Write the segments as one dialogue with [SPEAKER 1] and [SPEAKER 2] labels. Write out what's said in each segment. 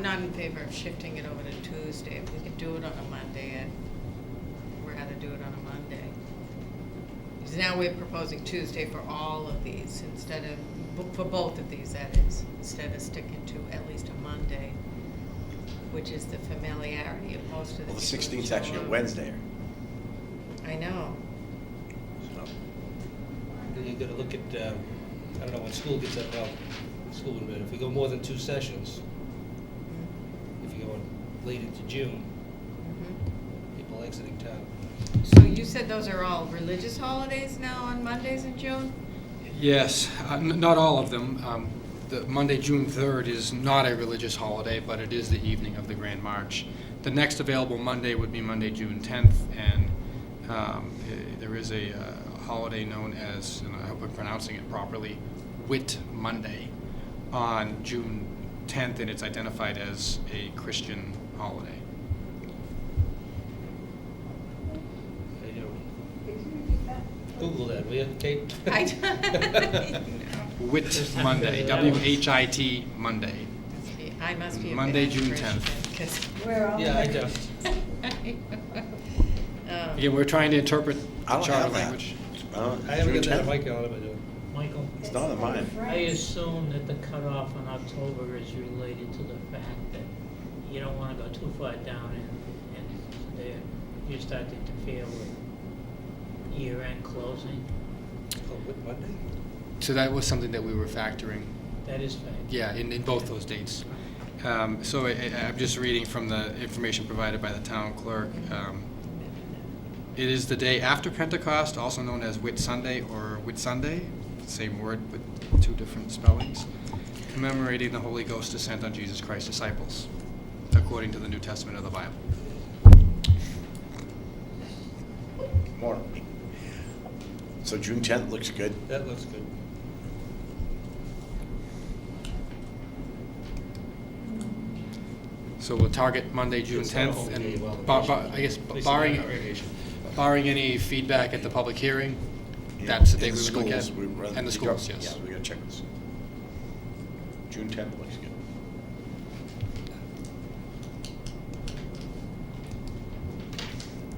[SPEAKER 1] not in favor of shifting it over to Tuesday. If we could do it on a Monday, I'd rather do it on a Monday. Because now we're proposing Tuesday for all of these instead of, for both of these, that is, instead of sticking to at least a Monday, which is the familiarity of most of the
[SPEAKER 2] Well, the
[SPEAKER 1] people that
[SPEAKER 2] sixteenth is
[SPEAKER 1] show
[SPEAKER 2] actually a
[SPEAKER 1] up.
[SPEAKER 2] Wednesday,
[SPEAKER 1] I know.
[SPEAKER 2] so.
[SPEAKER 3] You gotta look at, um, I don't know, when school gets up, well, school would have been, if we go more than two sessions, if you go on late into June,
[SPEAKER 1] Mhm.
[SPEAKER 3] people exiting town.
[SPEAKER 1] So you said those are all religious holidays now on Mondays in June?
[SPEAKER 4] Yes, uh, n- not all of them. Um, The Monday, June 3rd is not a religious holiday, but it is the evening of the Grand March. The next available Monday would be Monday, June 10th, and um, eh, there is a uh, holiday known as, and I hope I'm pronouncing it properly, Whit Monday on June 10th, and it's identified as a Christian holiday.
[SPEAKER 3] I don't- Google that, will you, Kate?
[SPEAKER 1] I don't-
[SPEAKER 4] Whit Monday, W-H-I-T Monday.
[SPEAKER 1] Must be- I must be a
[SPEAKER 4] Monday,
[SPEAKER 1] bad
[SPEAKER 4] June
[SPEAKER 1] Christian,
[SPEAKER 4] 10th.
[SPEAKER 1] 'cause-
[SPEAKER 5] We're all.
[SPEAKER 3] Yeah, I
[SPEAKER 5] British.
[SPEAKER 3] don't.
[SPEAKER 1] Um,
[SPEAKER 4] Again, we're trying to interpret
[SPEAKER 2] I
[SPEAKER 4] the
[SPEAKER 2] don't
[SPEAKER 4] charter
[SPEAKER 2] have that.
[SPEAKER 4] language.
[SPEAKER 2] I don't-
[SPEAKER 3] I haven't
[SPEAKER 2] Uh, June
[SPEAKER 3] got that
[SPEAKER 2] 10th?
[SPEAKER 3] mic on, am I doing?
[SPEAKER 6] Michael,
[SPEAKER 2] It's not on mine.
[SPEAKER 5] French.
[SPEAKER 6] I assume that the cutoff in October is related to the fact that you don't wanna go too far down and, and there, you start to interfere with year-end closing.
[SPEAKER 3] Oh, what, Monday?
[SPEAKER 4] So that was something that we were factoring,
[SPEAKER 6] That is fact.
[SPEAKER 4] yeah, in, in both those dates. Um, so I, I- I'm just reading from the information provided by the town clerk. Um, It is the day after Pentecost, also known as Whit Sunday or Whit Sunday, same word with two different spellings, commemorating the Holy Ghost descent on Jesus Christ's disciples, according to the New Testament of the Bible.
[SPEAKER 2] More. So June tenth looks good.
[SPEAKER 3] That looks good.
[SPEAKER 4] So we'll target Monday, June
[SPEAKER 3] It's not a
[SPEAKER 4] 10th,
[SPEAKER 3] home day, well,
[SPEAKER 4] and bar- bar- I guess
[SPEAKER 3] at least it's
[SPEAKER 4] barring,
[SPEAKER 3] not a variation.
[SPEAKER 4] barring any feedback at the public hearing,
[SPEAKER 2] Yeah,
[SPEAKER 4] that's the
[SPEAKER 2] and
[SPEAKER 4] date we would look at.
[SPEAKER 2] schools, we run-
[SPEAKER 4] And the
[SPEAKER 2] we go-
[SPEAKER 4] schools, yes.
[SPEAKER 2] Yeah, we gotta check this. June tenth looks good.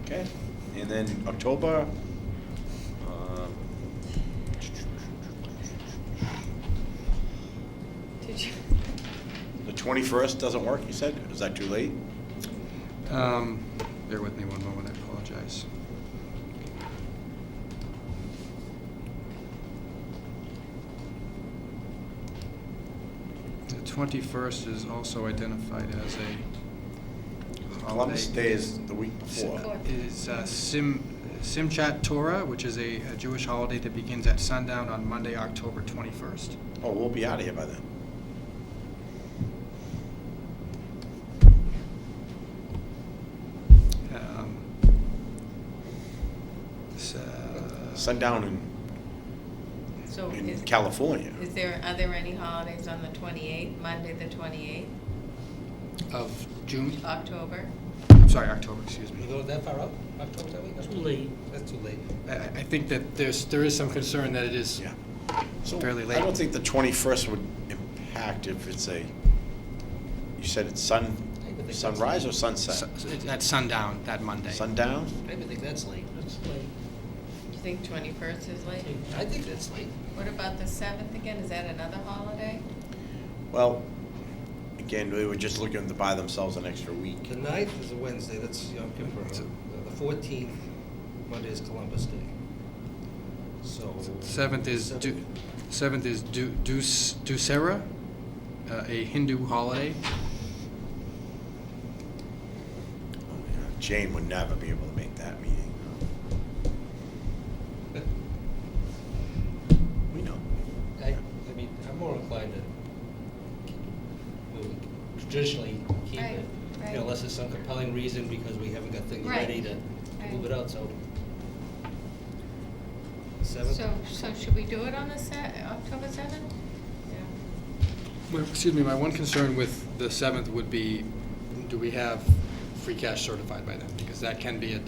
[SPEAKER 2] Okay, and then October. um,
[SPEAKER 1] Did you,
[SPEAKER 2] The twenty-first doesn't work, you said? Is that too late?
[SPEAKER 4] Um, Bear with me one moment, I apologize. The 21st is also identified as a holiday.
[SPEAKER 2] Columbus Day is the week before.
[SPEAKER 4] is uh, Sim Simchat Torah, which is a a Jewish holiday that begins at sundown on Monday, October 21st.
[SPEAKER 2] Oh, we'll be out of here by then.
[SPEAKER 4] Um, s- uh,
[SPEAKER 2] Sundown in,
[SPEAKER 1] so
[SPEAKER 2] in
[SPEAKER 1] is,
[SPEAKER 2] California.
[SPEAKER 1] is there, are there any holidays on the twenty-eighth, Monday the twenty-eighth,
[SPEAKER 4] Of June,
[SPEAKER 1] October?
[SPEAKER 4] I'm sorry, October, excuse
[SPEAKER 3] We
[SPEAKER 4] me.
[SPEAKER 3] go that far out, October, that week?
[SPEAKER 6] Too late.
[SPEAKER 3] That's too late.
[SPEAKER 4] I- I I think that there's, there is some concern that it is
[SPEAKER 2] Yeah. So
[SPEAKER 4] fairly late.
[SPEAKER 2] I don't think the twenty-first would impact if it's a, you said it's sun,
[SPEAKER 3] I would think that's-
[SPEAKER 2] sunrise or
[SPEAKER 4] su-
[SPEAKER 2] sunset?
[SPEAKER 4] it's at sundown that Monday.
[SPEAKER 2] Sundown?
[SPEAKER 3] I even think that's late.
[SPEAKER 6] That's like,
[SPEAKER 1] You think twenty-first is late?
[SPEAKER 3] I think that's late.
[SPEAKER 1] What about the seventh again? Is that another holiday?
[SPEAKER 2] Well, again, they were just looking to buy themselves an extra week.
[SPEAKER 3] The ninth is a Wednesday, that's Yom Kippur.
[SPEAKER 4] It's a-
[SPEAKER 3] The fourteenth, Monday is Columbus Day. So.
[SPEAKER 4] Seventh is Du, seventh is Du, Dus- Dussehra, uh, a Hindu holiday.
[SPEAKER 2] Oh, Jane would never be able to make that meeting. We know.
[SPEAKER 3] I, I mean, I'm more inclined to keep it, we would traditionally keep
[SPEAKER 1] Right,
[SPEAKER 3] it. you know,
[SPEAKER 1] right.
[SPEAKER 3] Unless there's some compelling reason because we haven't got things
[SPEAKER 1] Right,
[SPEAKER 3] ready to move
[SPEAKER 1] right.
[SPEAKER 3] it out, so. Seventh?
[SPEAKER 1] So, so should we do it on the se- October seventh? Yeah.
[SPEAKER 4] Well, Excuse me, my one concern with the seventh would be, do we have free cash certified by then? Because that can be a, a